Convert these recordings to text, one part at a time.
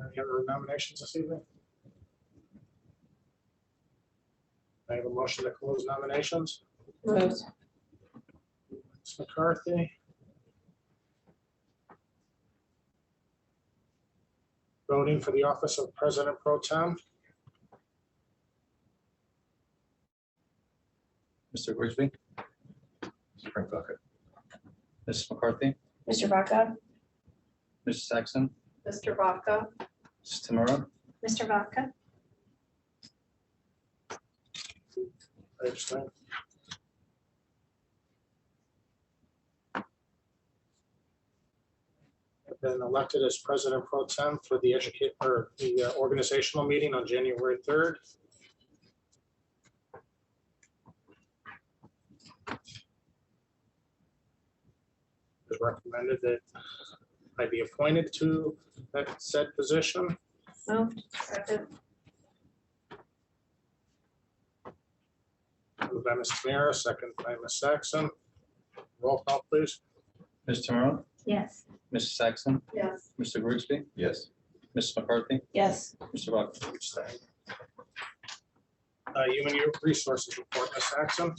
Any other nominations this evening? I have a motion to close nominations. Vote. Ms. McCarthy. Voting for the office of President Pro Tem, Mr. Grigsby. Mr. Franklin. Mrs. McCarthy, Mr. Vaca? Mrs. Saxon, Mr. Vaca. Mrs. Tamura, Mr. Vaca? I understand. I've Been elected as President Pro Tem for the educate, or the uh, organizational meeting on January third. It's recommended that I be appointed to that said position. Moved. Second. Moved by Ms. Tamara, second by Ms. Saxon. Roll call, please. Mrs. Tamura, Yes. Mrs. Saxon, Yes. Mr. Grigsby, Yes. Mrs. McCarthy, Yes. Mr. Vaca. Tuesday. Uh, Human Resources Report, Ms. Saxon.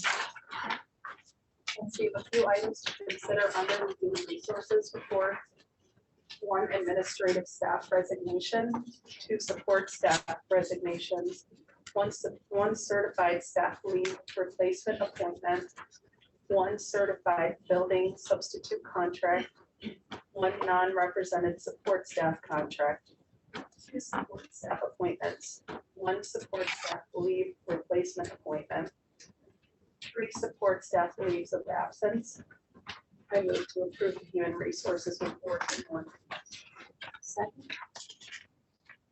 Let's see, a few items to consider under the human resources report. One administrative staff resignation, two support staff resignations, one, cer- one certified staff leave replacement appointment, one certified building substitute contract, one non-represented support staff contract, two support staff appointments, one support staff leave replacement appointment, three support staff leaves of absence. I move to approve the human resources report in one. Second,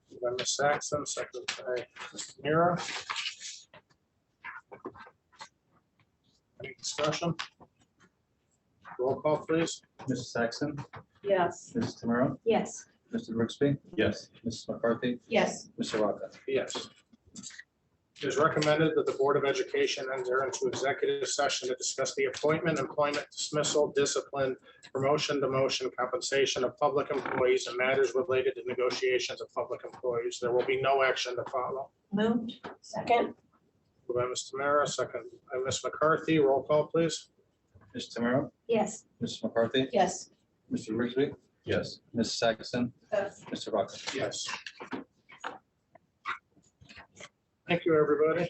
Moved By Ms. Saxon, second by Ms. Mira. Any discussion? Roll call, please. Mrs. Saxon, yes, Mrs. Tamura, Yes. Mr. Grigsby, Yes. Mrs. McCarthy, Yes. Mr. Vaca. Yes. It is recommended that the Board of Education enter into executive session to discuss the appointment, employment dismissal, discipline, promotion, demotion, compensation of public employees and matters related to negotiations of public employees. There will be no action to follow. Moved. Second. Moved by Ms. Tamara, second by Ms. McCarthy. Roll call, please. Mrs. Tamura, Yes. Mrs. McCarthy, Yes. Mr. Grigsby, Yes. Mrs. Saxon, yes. Mr. Vaca. Yes. Thank you, everybody.